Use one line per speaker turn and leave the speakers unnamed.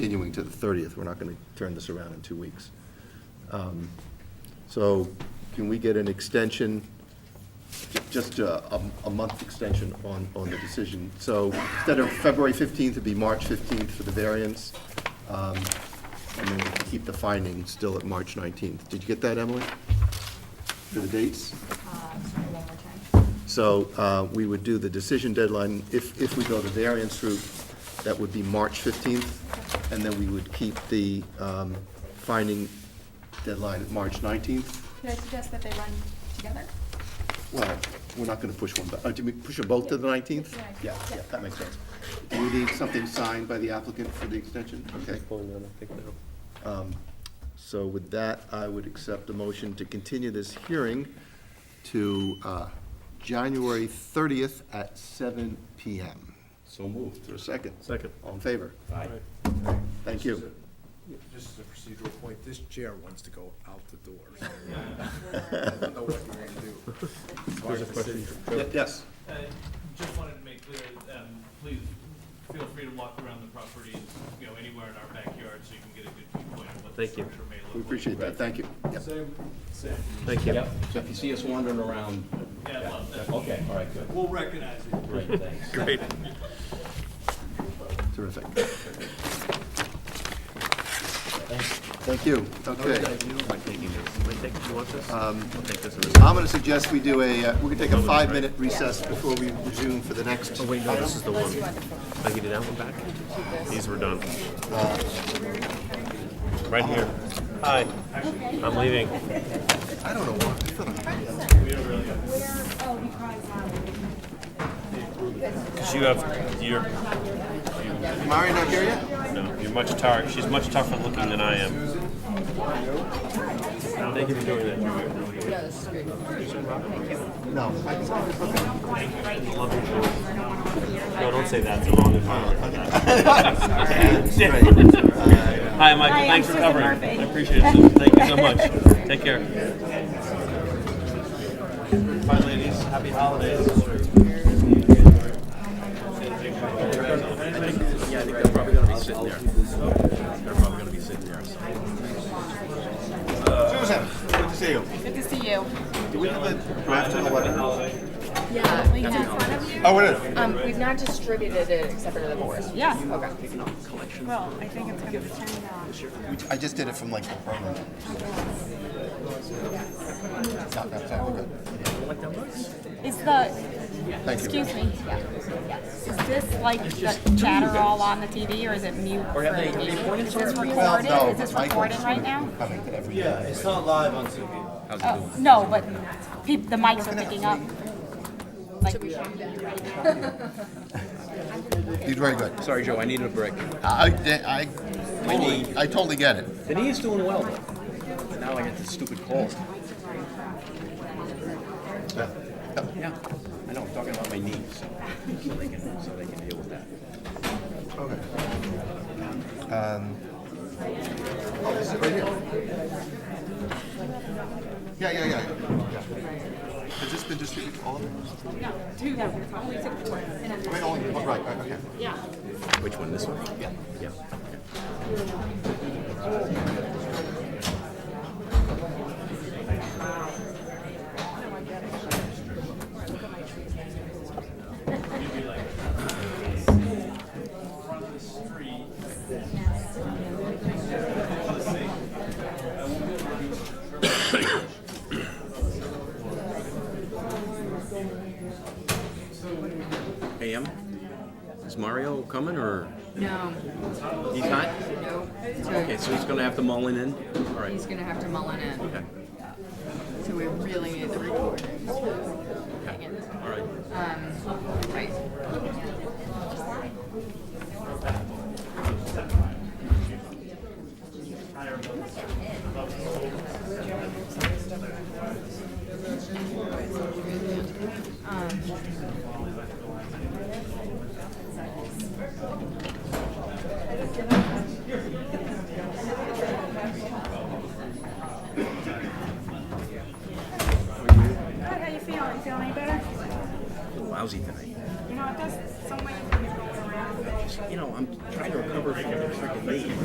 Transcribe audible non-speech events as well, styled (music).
continuing to the 30th, we're not going to turn this around in two weeks. Um, So can we get an extension, ju- just a, a- a month extension on, on the decision? So instead of February 15th, it'd be March 15th for the variance, um, and then we can keep the finding still at March 19th. Did you get that, Emily? For the dates?
Uh, sorry, one more time.
So uh, we would do the decision deadline, if, if we go the variance route, that would be March 15th, and then we would keep the um, finding deadline at March 19th.
Could I suggest that they run together?
Well, we're not going to push one, but, uh, do we push them both to the 19th?
Yeah.
Yeah, yeah, that makes sense. Do we need something signed by the applicant for the extension? Okay. Um, So with that, I would accept a motion to continue this hearing to uh, January 30th at 7 PM.
So moved.
Is there a second?
Second.
All in favor?
Aye.
Thank you.
Just as a procedural point, this chair wants to go out the door. so I don't know what you want to do. It's hard to sit.
Ye- Yes.
Uh, Just wanted to make clear, um, please feel free to walk around the property, you know, anywhere in our backyard, so you can get a good viewpoint of what the
Thank you.
structure may look like.
We appreciate that. Thank you. Yep.
Thank you.
Yep, so if you see us wandering around,
Yeah, I love that.
okay, all right, good,
We'll recognize it.
great, thanks.
Terrific. Thank you. Okay. I'm going to suggest we do a, uh, we can take a five-minute recess before we resume for the next.
Oh, wait, no, this is the one. I can do that one back? These were done. Right here. Hi. I'm leaving.
I don't know why. I thought I-
Oh, um,
She have, you're,
Mari not here yet?
no, you're much tar, she's much tougher looking than I am. Thank you for doing that.
No.
No, don't say that, it's a long (laughs) environment. Hi, Michael, thanks for covering. I appreciate it, Susan. thank you so much. Take care. Bye, ladies, happy holidays.
Susan, good to see you.
Good to see you.
Do we have a draft of the letter?
Yeah, we have,
Oh, it is.
um, we've not distributed it except for the board.
Yeah. Well, I think it's gonna depend on.
We- I just did it from like the program. Not that far, we're good.
Is the,
Thank you.
excuse me, is this like the chatter all on the TV or is it mute for the meeting? Is this
Well,
recorded?
no.
Is this
Michael's
recording right now?
Coming to every.
It's not live on TV.
Oh, no, but peop the mics are picking up. Like,
He's very good.
Sorry, Joe, I needed a break.
I, I, totally, I totally get it.
The knee's doing well, though. But now I got this stupid cold. Yeah, I know, I'm talking about my knee, so, so they can, so they can deal with that.
Oh, this Um, is right here. Yeah, yeah, yeah, yeah. Has this been distributed to all of them? I mean, only, oh, right, right, okay.
Which one, this one? Yeah. Yeah. Hey, Em, is Mario coming, or?
No,
He's not?
no.
Okay, so he's gonna have to mull it in? All right.
He's gonna have to mull it in,
Okay,
so we really need the recordings.
all right.
Um, Right.